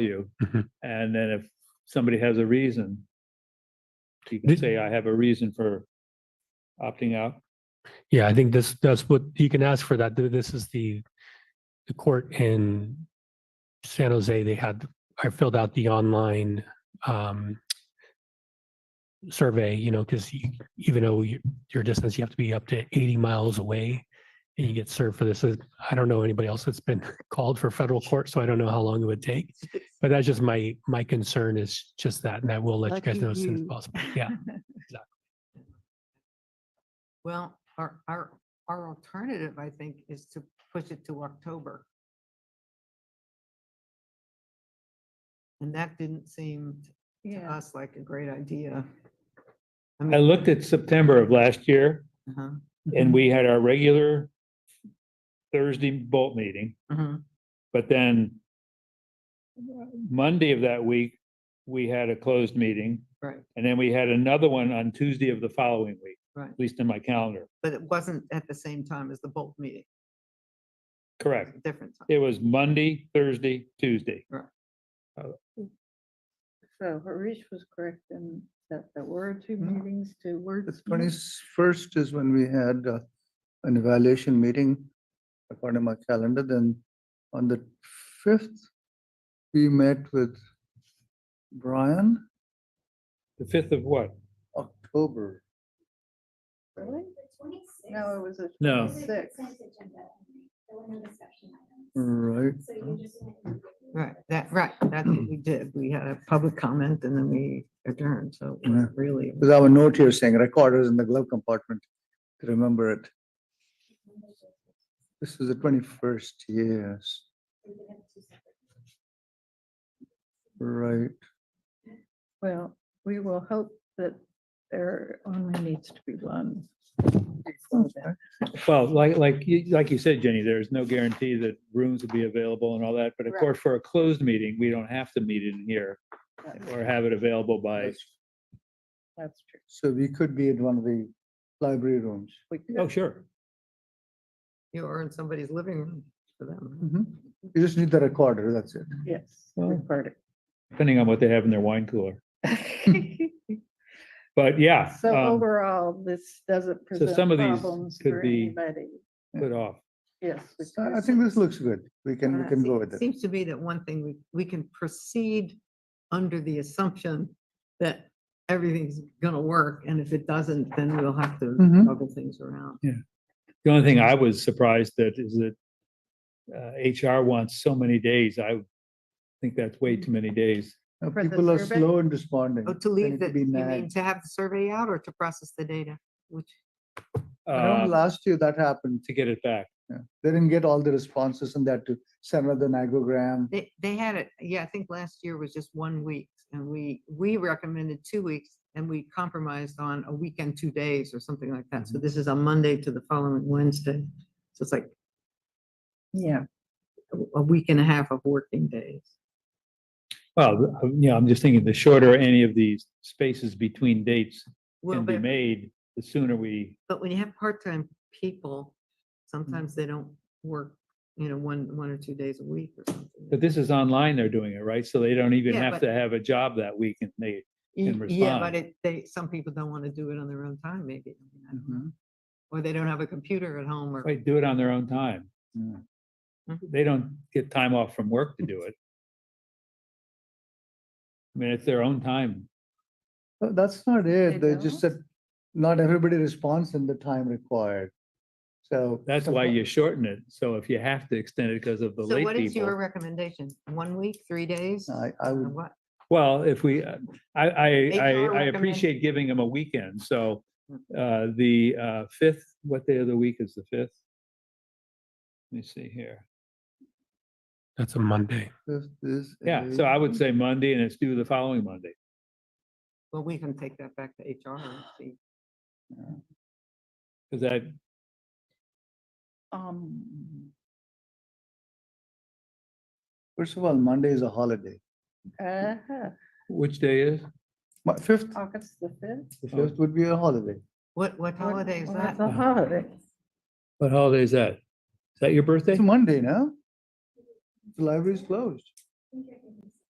you. Mhm. And then if somebody has a reason, you can Did- say, I have a reason for opting out. Yeah, I think this, that's what you can ask for that. Th- This is the, the court in San Jose. They had, I filled out the online um, survey, you know, because even though you- your distance, you have to be up to 80 miles away and you get served for this. Uh, I don't know anybody else that's been called for federal court, so I don't know how long it would take. But that's just my, my concern is just that, and I will let you guys Lucky know as soon as you. possible. Yeah. Well, our, our, our alternative, I think, is to push it to October. And that didn't seem to Yeah, us like a great idea. I Mm-hmm. looked at September of last year Uh-huh, and we had our regular Thursday bolt meeting, mhm. but then uh, Monday of that week, we had a closed meeting Right, and then we had another one on Tuesday of the following week, right. at least in my calendar. But it wasn't at the same time as the Bolt meeting. It was Correct. a Different time. It was Monday, Thursday, Tuesday. so Harish was correct in that there were two Hmm. meetings to work. The twenty-first is when we had uh, an evaluation meeting according to my calendar, then on the fifth, we met with Brian, The fifth of what? October. Really? No, it was a. Oh. No. Six. Right, Mm. Right, that, right, that's what we did. We had a public comment and then we adjourned, so it wasn't really. because I have a note here saying recorders in the glove compartment, to remember it. This is the twenty-first, yes, right. Well, we will hope that there only needs to be one. Well, like, like, you- like you said, Jenny, there's no guarantee that rooms will be available and all that, but of Right. course, for a closed meeting, we don't have to meet in here or have it available by, That's true. So we could be at one of the library rooms. We oh, could, sure. You were in somebody's living room for them. Mhm. You just need the recorder, that's it. yes, Well- record Depending on what they have in their wine cooler. it. But yeah, So um, overall, this doesn't present some of these problems could for be- anybody. put off. Yes. I I because think this looks good. We can, we Uh, can Se- go with it. Seems to be that one thing, we, we can proceed under the assumption that everything's gonna work, and if it doesn't, then we'll have to Mhm. juggle things around. The only thing I was surprised that is that uh, HR wants so many days. I think that's way too many days. Uh, For the People are survey? slow in responding. Oh, to They leave need to the, be you mean nagged. to have the survey out or to process the data? Which, I remember uh, last year that happened. To get it back. Yeah. They didn't get all the responses and that to send another nagogram. they, they had it, yeah, I think last year was just one week, and we, we recommended two weeks, and we compromised on a weekend, two days, or something like that. So Mm-hmm. this is a Monday to the following Wednesday. So it's like Yeah, a- a week and a half of working days. Well, uh, you know, I'm just thinking the shorter any of these spaces between dates Well, can be but- made, the sooner we But when you have part-time people, sometimes Mm-hmm. they don't work, you know, one, one or two days a week or something. But this is online, they're doing it, right? So they don't even Yeah, have but- to have a job that week and they, Y- can Yeah, respond. but it, they, some people don't want to do it on their own time, maybe. I mean, I don't know. Mm-hmm. Or they don't have a computer at home or, Mm. right, do it on their own time. Mm. Mm-hmm. They don't get time off from work to do it. I mean, it's their own time. But That's not They it. They just don't? said, not everybody responds in the time required. So. That's why you shorten it. So if you have to extend it because of the so late what is your people. recommendation? One week, three days? I, I or would, What? Well, if we, uh, I, I, I, HR I recommend- Mm. appreciate giving them a weekend. So uh, the uh, fifth, what day of the week is the fifth? Let me see here. That's a Monday. this is. Yeah, a- so I would say Monday and it's due the following Monday. Well, we can take that back to HR and see. Because that, um, First of all, Monday is a holiday. uh-huh, Which day is? My fifth, August the fifth. the Oh. fifth would be a holiday. What, what holiday is Well, that? That's a holiday. What holiday is that? Is that your birthday? It's Monday, no? The library is closed.